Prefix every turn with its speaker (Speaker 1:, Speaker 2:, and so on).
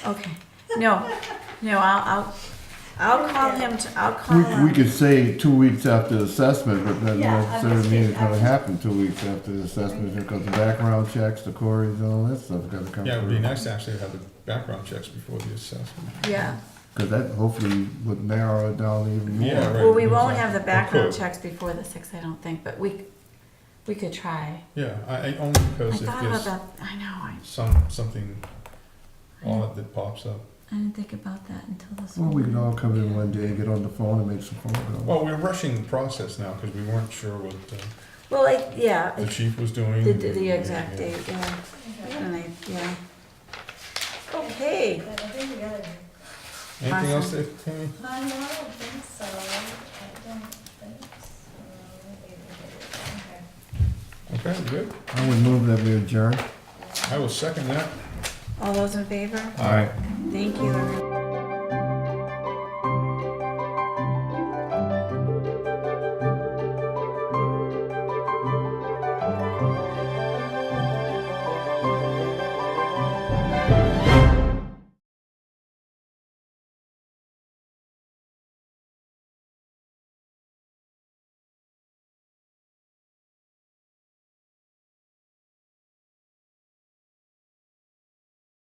Speaker 1: Okay, no, no, I'll, I'll, I'll call him, to- I'll call
Speaker 2: We, we
Speaker 1: him.
Speaker 2: could say two weeks after the assessment, but that
Speaker 3: Yeah, I
Speaker 2: doesn't
Speaker 3: was
Speaker 2: necessarily mean it's gonna
Speaker 3: thinking-
Speaker 2: happen two weeks after the assessment, because the background checks, the queries, and all that stuff gotta come through.
Speaker 4: Yeah, it would be nice to actually have the background checks before the assessment.
Speaker 1: Yeah,
Speaker 2: Cause that hopefully would narrow it down even
Speaker 4: Yeah,
Speaker 2: more.
Speaker 4: right.
Speaker 1: well, we won't have the
Speaker 4: Or
Speaker 1: background
Speaker 4: could.
Speaker 1: checks before the sixth, I don't think, but we, we could try.
Speaker 4: Yeah, I, I only
Speaker 1: I
Speaker 4: because it
Speaker 1: thought about
Speaker 4: gives
Speaker 1: that, I know, I,
Speaker 4: some, something
Speaker 1: I
Speaker 4: odd that pops up.
Speaker 1: didn't think about that until this.
Speaker 2: Well, we could all
Speaker 1: morning.
Speaker 2: come in one day, get on the phone and make some phone calls.
Speaker 4: Well, we're rushing the process now because we weren't sure what uh,
Speaker 1: Well, I, yeah,
Speaker 4: the
Speaker 1: I-
Speaker 4: chief was doing.
Speaker 1: the, the exact date, yeah,
Speaker 3: Okay.
Speaker 1: and I, yeah. Okay,
Speaker 3: But I think we gotta,
Speaker 4: Anything else, that- Tammy?
Speaker 3: I don't think so, I don't think so.
Speaker 4: Okay, good.
Speaker 2: I would move that we adjourn.
Speaker 4: I will second that.
Speaker 1: all those in favor?
Speaker 2: All right.
Speaker 1: Thank you, everyone.